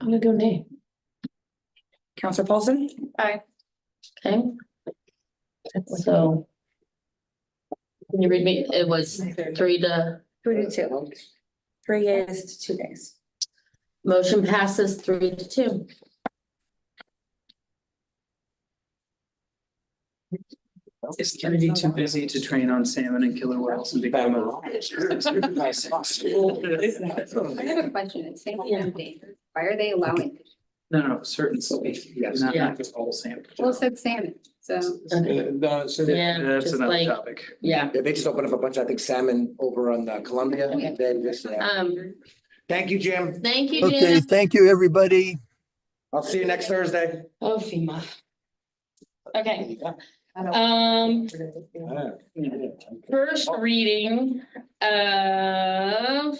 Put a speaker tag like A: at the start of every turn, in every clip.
A: I'm gonna go nay.
B: Counselor Paulson?
C: Aye.
A: Okay. So. Can you read me? It was three to,
C: Three to two.
B: Three yeas to two days.
A: motion passes three to two.
D: Is Kennedy too busy to train on salmon and killer whales and become a?
C: I have a question. It's saying they're endangered. Why are they allowing? it?
D: No, no, certain species, not
A: Yeah.
D: not just all salmon.
C: Well, it said salmon, so.
A: Mm-hmm.
E: Uh, No, so they,
A: Yeah,
D: That's
A: just
D: another
A: like,
D: topic.
A: yeah,
E: they just opened up a bunch, I think salmon over on uh, Columbia.
A: Okay.
E: They just- yeah.
A: um,
E: Thank you, Jim.
A: thank you,
F: Okay,
A: Jim.
F: thank you, everybody.
E: I'll see you next Thursday.
A: Oh, FEMA. Okay, um, first reading of.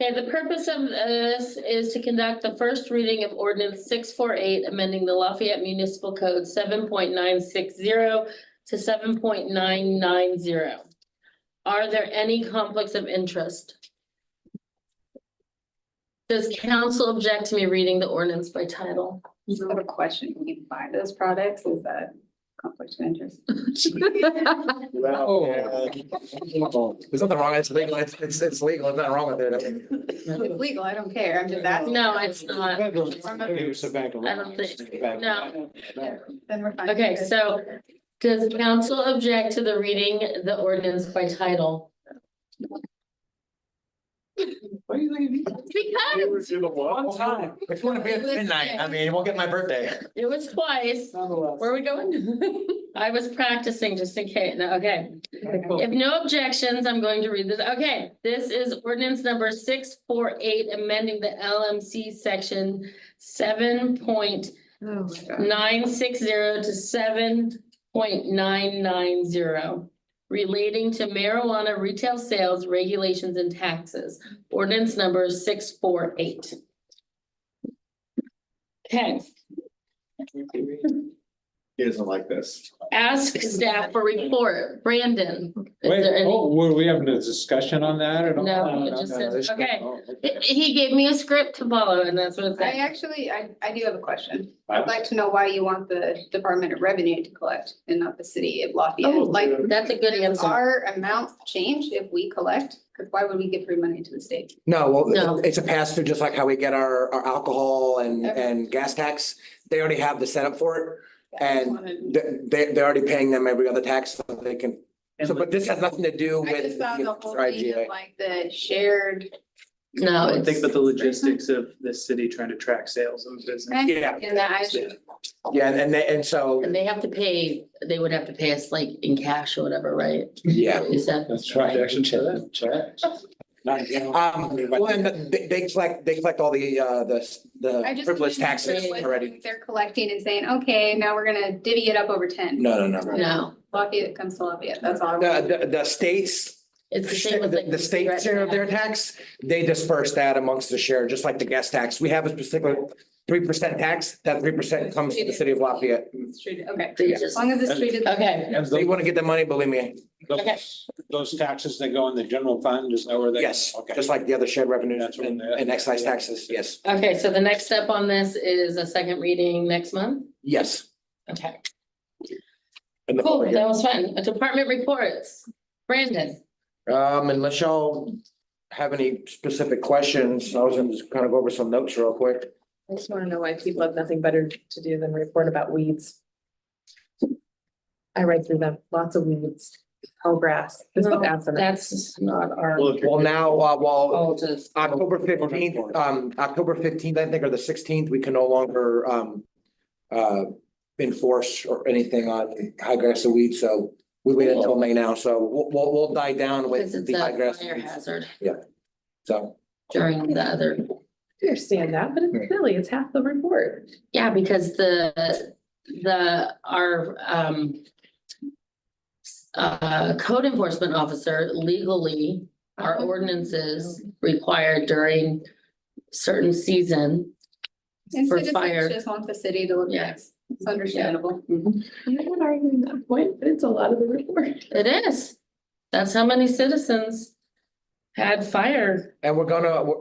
A: Okay, the purpose of this is to conduct the first reading of ordinance six four eight, amending the Lafayette Municipal Code seven point nine six zero to seven point nine nine zero. Are there any conflicts of interest? Does council object to me reading the ordinance by title?
C: I have a question. When you buy those products, is that conflict of interest?
E: Well, uh, There's nothing wrong, it's legal, it's, it's it's legal, there's nothing wrong with it.
C: It's legal, I don't care. I'm just asking.
A: No, it's not. I don't think, no.
C: Then we're fine.
A: Okay, so does council object to the reading the ordinance by title?
D: What do you think? of me?
A: Because
D: One time.
E: If you wanna be at midnight, I mean, you won't get my birthday.
A: it was twice.
C: Oh,
A: Where are we going? I was practicing just in case. No, okay. If no objections, I'm going to read this. Okay, this is ordinance number six four eight, amending the LMC section seven point
C: Oh, my God.
A: nine six zero to seven point nine nine zero relating to marijuana retail sales regulations and taxes, ordinance number six four eight. Okay,
G: He doesn't like this.
A: ask staff for report. Brandon. is
H: Wait,
A: there any-
H: oh, were we having a discussion on that at all?
A: No, it just says, okay. He- He gave me a script to follow and that's what it
C: I
A: said.
C: actually, I, I do have a question.
H: Wow.
C: I'd like to know why you want the Department of Revenue to collect and not the city of Lafayette.
A: Oh,
C: Like,
A: That's a good
C: does
A: answer.
C: our amount change if we collect? Because why would we give free money to the state?
A: No.
E: No, well, it's a pass through, just like how we get our, our alcohol and,
C: Okay.
E: and gas tax. They already have the setup for
C: I just
E: And it.
C: wanted-
E: They, they, they're already paying them every other tax, so they can,
D: And
E: so, but this has nothing to do
C: I just
E: with.
C: thought the whole
E: our
C: thing
E: IGA.
C: of like the shared.
A: No,
D: I
A: it's,
D: Think about the logistics of this city trying to track sales and business.
E: Yeah,
C: And that I should,
E: yeah, and- and they, and so,
A: and they have to pay, they would have to pay us like in cash or whatever, right?
E: yeah.
A: Is that?
H: That's right. Objection to that,
E: Um, well, and they, they collect, they collect all the, uh, the,
C: I
E: the privilege
C: just. wondered
E: taxes
C: what
E: already.
C: They're collecting and saying, okay, now we're gonna divvy it up over ten.
E: No, no, no, no.
A: No,
C: Lafayette comes to Lafayette, that's all. I wanted.
E: The, the, the states,
A: it's the same with
E: the
A: like.
E: the state share of their tax, they disperse that amongst the share, just like the gas tax. We have a specific three percent tax, that three percent comes to the city of Lafayette.
C: It's treated- Okay,
A: They
E: Yeah.
C: as
A: just,
C: long as it's treated.
A: okay,
H: And
E: They
H: tho-
E: want to get the money, believe me.
A: Okay.
H: those, those taxes that go in the general fund, is that where they?
E: Yes,
H: Okay.
E: just like the other shared revenues
H: That's what
E: and,
H: they-
E: and excise taxes. Yes,
A: okay, so the next step on this is a second reading next month?
E: yes.
A: Okay,
E: And the-
A: cool, that was fun. Department reports, Brandon.
E: Um, unless y'all have any specific questions, I was gonna just kind of go over some notes real quick.
I: I just wanna know why people have nothing better to do than report about weeds. I write through them, lots of weeds, tall grass, this
A: No,
I: is absent.
A: That's not our.
D: Well, if you're-
E: Well, now, uh, while
A: Oh, just,
E: October fifteenth, um, October fifteenth, I think, or the sixteenth, we can no longer, um, uh, enforce or anything on high grass and weeds, so we wait until May now, so we'll, we'll, we'll die down
A: because
E: with
A: it's
E: the high
A: a
E: grass.
A: fire hazard
E: So,
A: during the other,
I: I understand that, but it's silly, it's half the report.
A: yeah, because the, the, our, um. Uh, code enforcement officer legally, our ordinances required during certain season.
C: And
A: for
C: citizens
A: fire.
C: Just want the city to look at, it's understandable.
I: I'm not arguing that point, but it's a lot of the report.
A: It is. That's how many citizens had fire
E: and we're gonna, we're-